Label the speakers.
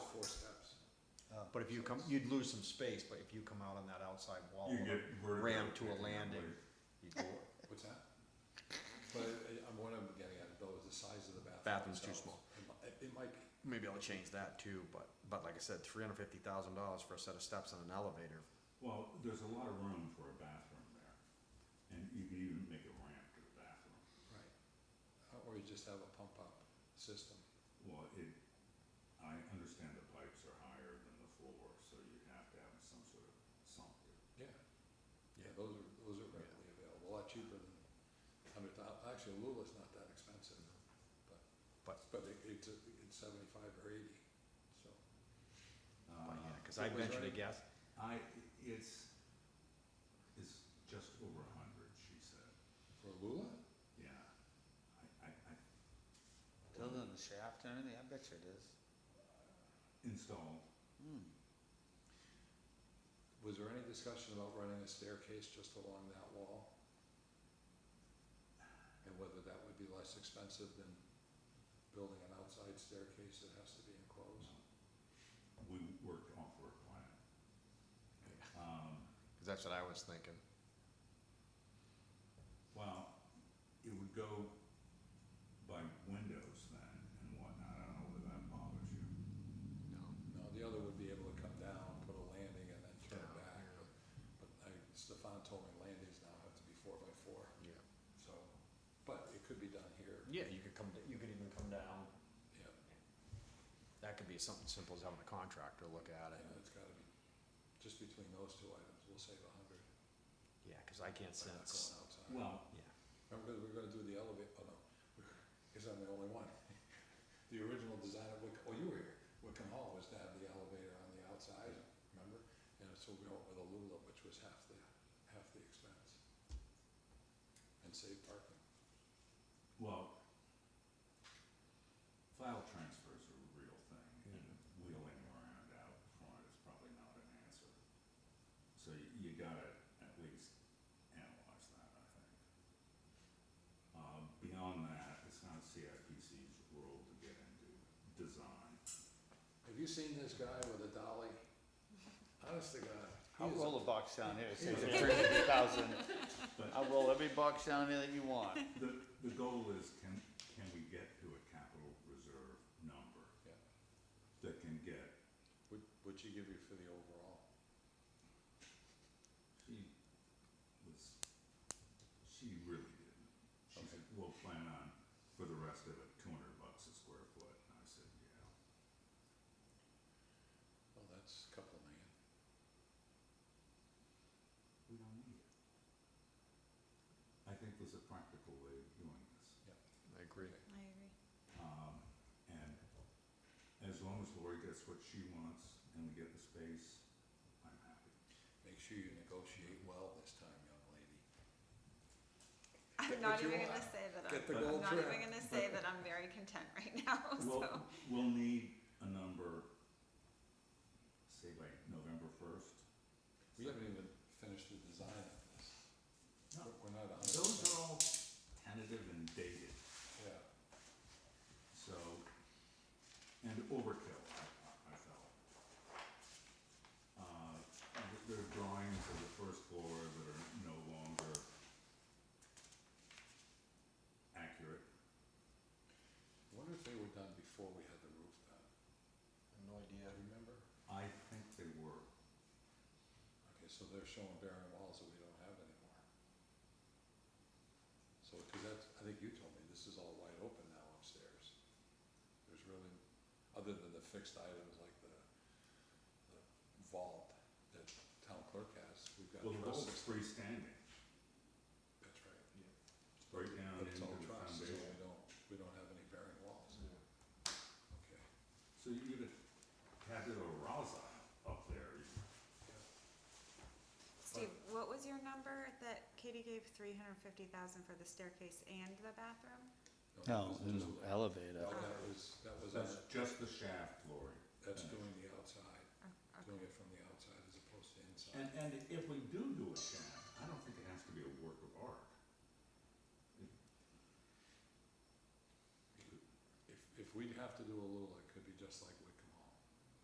Speaker 1: Uh,
Speaker 2: but if you come, you'd lose some space, but if you come out on that outside wall, on
Speaker 3: You get
Speaker 2: a
Speaker 3: vertical
Speaker 2: ramp to a
Speaker 3: and that
Speaker 2: landing,
Speaker 3: way.
Speaker 2: you go,
Speaker 1: What's that? But I- I'm, what I'm getting at though is the size of the bathroom.
Speaker 2: Bathroom's too
Speaker 1: itself. It mi- It might be.
Speaker 2: maybe I'll change that too, but, but like I said, three hundred fifty thousand dollars for a set of steps and an elevator,
Speaker 3: Well, there's a lot of room for a bathroom there, and you can even make a ramp to the bathroom.
Speaker 1: Right. Uh, Or you just have a pump up system.
Speaker 3: Well, it, I understand the pipes are higher than the floor, so you have to have some sort of sump there.
Speaker 1: Yeah. Yeah, those are, those are readily available, a lot cheaper than, I mean, thou- actually Lula's not that expensive, but,
Speaker 2: but,
Speaker 1: but it, it's, it's seventy-five or eighty, so.
Speaker 2: but yeah, cause
Speaker 1: Uh,
Speaker 2: I
Speaker 1: it was
Speaker 2: ventured to
Speaker 1: right-
Speaker 2: guess,
Speaker 3: I, it's, it's just over a hundred, she said.
Speaker 1: For Lula?
Speaker 3: Yeah, I, I, I
Speaker 4: Built on the shaft and everything, I bet you it is. Hmm.
Speaker 3: installed,
Speaker 1: Was there any discussion about running a staircase just along that wall? And whether that would be less expensive than building an outside staircase that has to be enclosed?
Speaker 3: we worked off her plan. Um,
Speaker 2: cause that's what I was thinking.
Speaker 3: Well, it would go by windows then and whatnot, I don't know whether that bothers you.
Speaker 2: No.
Speaker 1: No, the other would be able to come down, put a landing and then turn
Speaker 2: Down,
Speaker 1: back.
Speaker 2: yeah.
Speaker 1: But but I, Stefan told me landings now have to be four by four,
Speaker 2: Yeah.
Speaker 1: so, but it could be done here,
Speaker 2: Yeah, you could come, you could even come down.
Speaker 1: yeah.
Speaker 2: That could be something simple as having a contractor look at
Speaker 1: I
Speaker 2: it.
Speaker 1: know it's gotta be, just between those two items, we'll save a hundred
Speaker 2: Yeah, cause I can't
Speaker 1: by not
Speaker 2: sense,
Speaker 1: going outside.
Speaker 3: Well,
Speaker 2: yeah,
Speaker 1: Remember, we were gonna do the elevator, oh no, because I'm the only one. The original design of Wick, oh, you were here, Wickham Hall was to have the elevator on the outside, remember? And so we went with a Lula, which was half the, half the expense. And saved parking.
Speaker 3: well, file transfers are a real thing, and wheeling around out front is probably not an answer. So you, you gotta at least analyze that, I think. Um, beyond that, it's not CIPC's role to get into design.
Speaker 1: Have you seen this guy with a dolly? Honest to God. he
Speaker 4: I'll
Speaker 1: is a-
Speaker 4: roll a box down here, say
Speaker 3: Yeah.
Speaker 4: three hundred thousand.
Speaker 3: But-
Speaker 4: I'll roll every box down here that you want.
Speaker 3: The, the goal is can, can we get to a capital reserve number
Speaker 1: Yeah,
Speaker 3: that can get,
Speaker 1: would, would she give you for the overall?
Speaker 3: she was, she really didn't. She
Speaker 1: Hmm. Okay.
Speaker 3: said, we'll plan on, for the rest of it, two hundred bucks a square foot, and I said, yeah.
Speaker 1: Well, that's a couple of million.
Speaker 3: We don't need it. I think there's a practical way of doing this.
Speaker 2: I agree.
Speaker 5: I agree.
Speaker 3: Um, and as long as Lori gets what she wants and we get the space, I'm happy.
Speaker 1: Make sure you negotiate well this time, young lady. Get
Speaker 5: I'm
Speaker 1: what
Speaker 5: not
Speaker 1: you
Speaker 5: even gonna
Speaker 1: want.
Speaker 5: say that
Speaker 1: Get the
Speaker 5: I'm,
Speaker 3: But-
Speaker 5: I'm
Speaker 1: gold
Speaker 5: not
Speaker 1: trim.
Speaker 5: even gonna say that I'm very content right now,
Speaker 3: We'll,
Speaker 5: so.
Speaker 3: we'll need a number, say by November first.
Speaker 1: We haven't even finished the design of this.
Speaker 3: No.
Speaker 1: We're- We're not a hundred percent.
Speaker 3: Those are all tentative and dated,
Speaker 1: Yeah,
Speaker 3: so, and overkill, I, I felt. Uh, th- there are drawings of the first floor that are no longer accurate.
Speaker 1: I wonder if they were done before we had the roof done,
Speaker 2: No idea.
Speaker 1: remember?
Speaker 3: I think they were,
Speaker 1: Okay, so they're showing barren walls that we don't have anymore. So, cause that's, I think you told me, this is all wide open now upstairs. There's really, other than the fixed items like the, the vault that town clerk has, we've got
Speaker 3: well, the
Speaker 1: trusses.
Speaker 3: vault's freestanding,
Speaker 1: That's right.
Speaker 3: right down
Speaker 1: But it's
Speaker 3: into
Speaker 1: all
Speaker 3: the
Speaker 1: trusses, so
Speaker 3: foundation.
Speaker 1: we don't, we don't have any barren walls. Okay.
Speaker 3: So you could have had it a raza up there.
Speaker 5: Steve, what was your number that Katie gave three hundred and fifty thousand for the staircase and the bathroom?
Speaker 1: that
Speaker 4: No,
Speaker 1: was
Speaker 4: in
Speaker 1: just-
Speaker 4: the elevator.
Speaker 1: No, that was, that was,
Speaker 3: That's
Speaker 1: on the-
Speaker 3: just the shaft, Lori.
Speaker 1: that's doing the outside,
Speaker 5: Oh, okay.
Speaker 1: doing it from the outside as opposed to
Speaker 3: And,
Speaker 1: inside.
Speaker 3: and if we do do a shaft, I don't think it has to be a work of art.
Speaker 1: If, if we'd have to do a Lula, it could be just like we